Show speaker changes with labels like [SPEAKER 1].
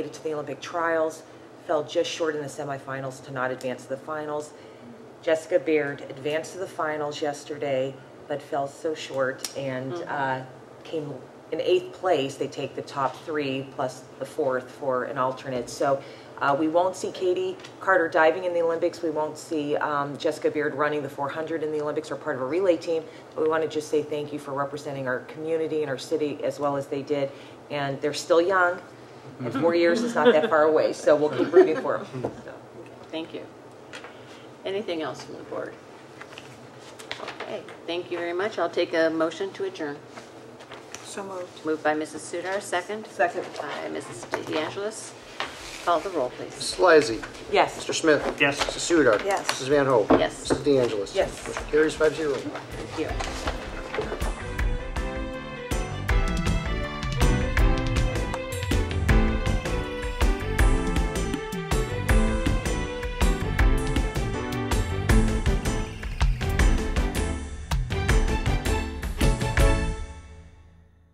[SPEAKER 1] to the Olympic trials, fell just short in the semifinals to not advance to the finals. Jessica Beard advanced to the finals yesterday, but fell so short and uh, came in eighth place. They take the top three plus the fourth for an alternate. So uh, we won't see Katie Carter diving in the Olympics. We won't see um, Jessica Beard running the 400 in the Olympics or part of a relay team. But we want to just say thank you for representing our community and our city as well as they did. And they're still young. And four years is not that far away, so we'll keep rooting for them.
[SPEAKER 2] Thank you. Anything else from the board? Okay, thank you very much. I'll take a motion to adjourn.
[SPEAKER 3] So moved.
[SPEAKER 2] Moved by Mrs. Sudar, second.
[SPEAKER 1] Second.
[SPEAKER 2] By Mrs. De Angelis. Call the roll, please.
[SPEAKER 4] Mrs. Lysy.
[SPEAKER 1] Yes.
[SPEAKER 4] Mr. Smith.
[SPEAKER 5] Yes.
[SPEAKER 4] Mrs. Sudar.
[SPEAKER 3] Yes.
[SPEAKER 4] Mrs. Van Hoen.
[SPEAKER 2] Yes.
[SPEAKER 4] Mrs. De Angelis.
[SPEAKER 1] Yes.
[SPEAKER 4] Motion carries five zero.
[SPEAKER 2] Thank you.